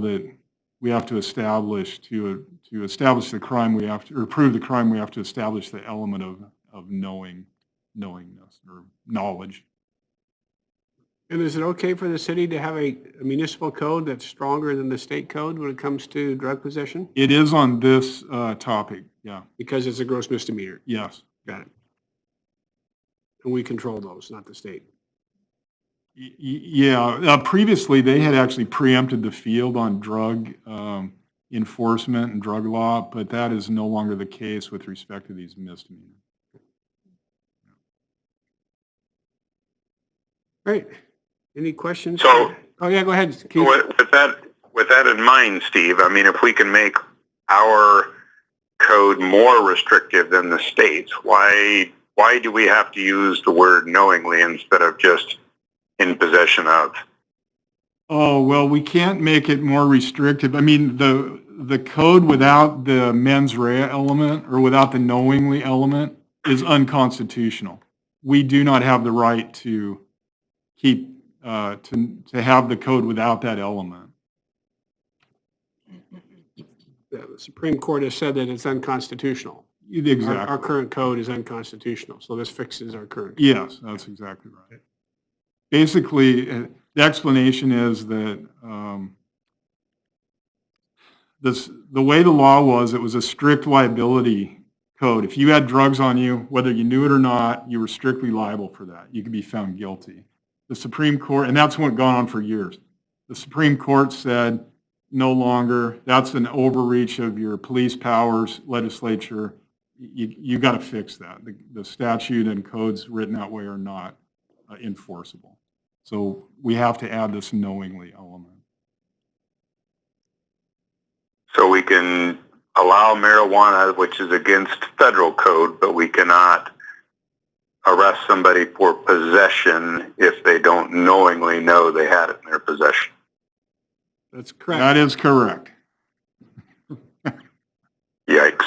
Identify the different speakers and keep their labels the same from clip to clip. Speaker 1: that we have to establish, to, to establish the crime, we have to, or prove the crime, we have to establish the element of, of knowing, knowingness or knowledge.
Speaker 2: And is it okay for the city to have a municipal code that's stronger than the state code when it comes to drug possession?
Speaker 1: It is on this uh, topic, yeah,
Speaker 2: Because it's a gross misdemeanor.
Speaker 1: yes.
Speaker 2: Got it. And we control those, not the state.
Speaker 1: Y- y- Yeah, uh, previously, they had actually preempted the field on drug um, enforcement and drug law, but that is no longer the case with respect to these misdemeanors.
Speaker 2: Great. Any questions?
Speaker 3: So-
Speaker 2: Oh, yeah, go ahead, Keith.
Speaker 3: With, with that, with that in mind, Steve, I mean, if we can make our code more restrictive than the state's, why, why do we have to use the word knowingly instead of just in possession of?
Speaker 1: Oh, well, we can't make it more restrictive. I mean, the, the code without the mens rea element or without the knowingly element is unconstitutional. We do not have the right to keep, uh, to, to have the code without that element.
Speaker 2: The Supreme Court has said that it's unconstitutional. Our- Our
Speaker 1: Exactly.
Speaker 2: current code is unconstitutional, so this fixes our current.
Speaker 1: Yes, that's exactly right. Basically, uh, the explanation is that um, this, the way the law was, it was a strict liability code. If you had drugs on you, whether you knew it or not, you were strictly liable for that. You could be found guilty. The Supreme Court, and that's what gone on for years. The Supreme Court said, no longer, that's an overreach of your police powers, legislature. You, you got to fix that. The- The statute and codes written that way are not uh, enforceable. So we have to add this knowingly element.
Speaker 3: So we can allow marijuana, which is against federal code, but we cannot arrest somebody for possession if they don't knowingly know they had it in their possession.
Speaker 2: That's correct.
Speaker 1: That is correct.
Speaker 3: Yikes.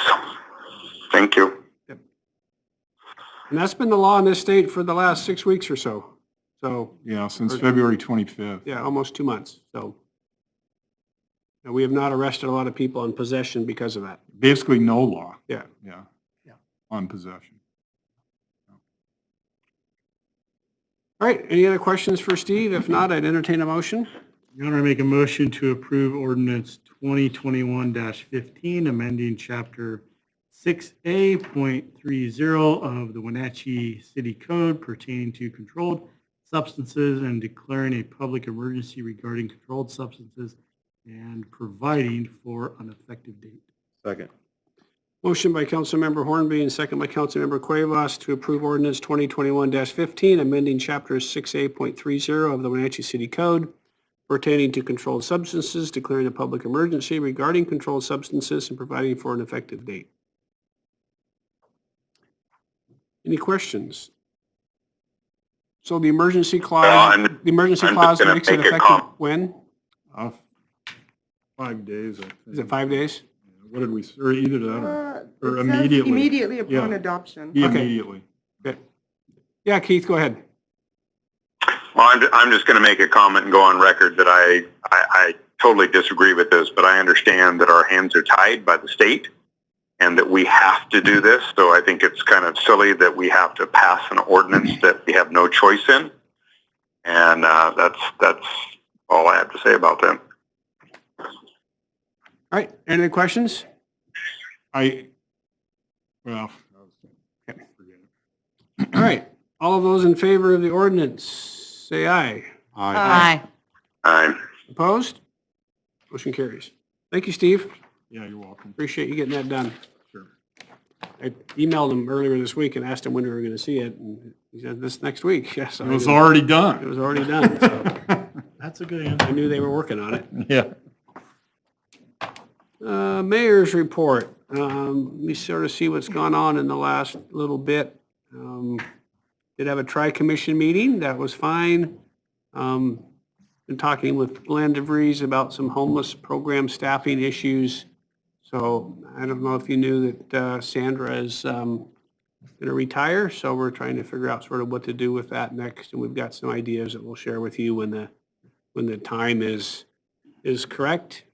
Speaker 3: Thank you.
Speaker 2: And that's been the law in this state for the last six weeks or so. So
Speaker 1: Yeah, since February 25th.
Speaker 2: yeah, almost two months, so. And we have not arrested a lot of people in possession because of that.
Speaker 1: Basically, no law.
Speaker 2: Yeah.
Speaker 1: Yeah.
Speaker 2: Yeah.
Speaker 1: On possession.
Speaker 2: All right, any other questions for Steve? If not, I'd entertain a motion.
Speaker 4: Your Honor, I make a motion to approve ordinance 2021-15, amending Chapter 6A.30 of the Wenatchee City Code pertaining to controlled substances and declaring a public emergency regarding controlled substances and providing for an effective date.
Speaker 2: Motion by Councilmember Hornby and second by Councilmember Cuevas to approve ordinance 2021-15, amending Chapter 6A.30 of the Wenatchee City Code pertaining to controlled substances, declaring a public emergency regarding controlled substances and providing for an effective date. Any questions? So the emergency clause,
Speaker 3: Uh, I'm-
Speaker 2: the emergency
Speaker 3: I'm just
Speaker 2: clause
Speaker 3: gonna
Speaker 2: makes it
Speaker 3: make a
Speaker 2: effective
Speaker 3: com-
Speaker 2: when?
Speaker 1: Uh, Five days, I think.
Speaker 2: Is it five days?
Speaker 1: What did we, or either that or
Speaker 5: Uh, it
Speaker 1: or
Speaker 5: says
Speaker 1: immediately.
Speaker 5: Immediately upon
Speaker 1: Yeah.
Speaker 5: adoption.
Speaker 1: be
Speaker 2: Okay.
Speaker 1: immediately.
Speaker 2: Yeah, Keith, go ahead.
Speaker 3: Well, I'm, I'm just going to make a comment and go on record that I, I, I totally disagree with this, but I understand that our hands are tied by the state and that we have to do this. So I think it's kind of silly that we have to pass an ordinance that we have no choice in. And uh, that's, that's all I have to say about that.
Speaker 2: All right, any other questions?
Speaker 1: I, well.
Speaker 2: All right, all of those in favor of the ordinance, say aye.
Speaker 5: Aye.
Speaker 3: Um,
Speaker 2: Opposed? Motion carries. Thank you, Steve.
Speaker 1: Yeah, you're welcome.
Speaker 2: Appreciate you getting that done.
Speaker 1: Sure.
Speaker 2: I emailed him earlier this week and asked him when we were going to see it, and he said this next week. Yes,
Speaker 1: It was already done.
Speaker 2: It was already done, so
Speaker 4: That's a good answer.
Speaker 2: I knew they were working on it.
Speaker 1: Yeah.
Speaker 2: Uh, Mayor's report. Um, We sort of see what's gone on in the last little bit. Um, Did have a tri-commission meeting. That was fine. Um, Been talking with Glenn DeVries about some homeless program staffing issues. So I don't know if you knew that uh, Sandra is um, gonna retire, so we're trying to figure out sort of what to do with that next. And we've got some ideas that we'll share with you when the, when the time is is correct.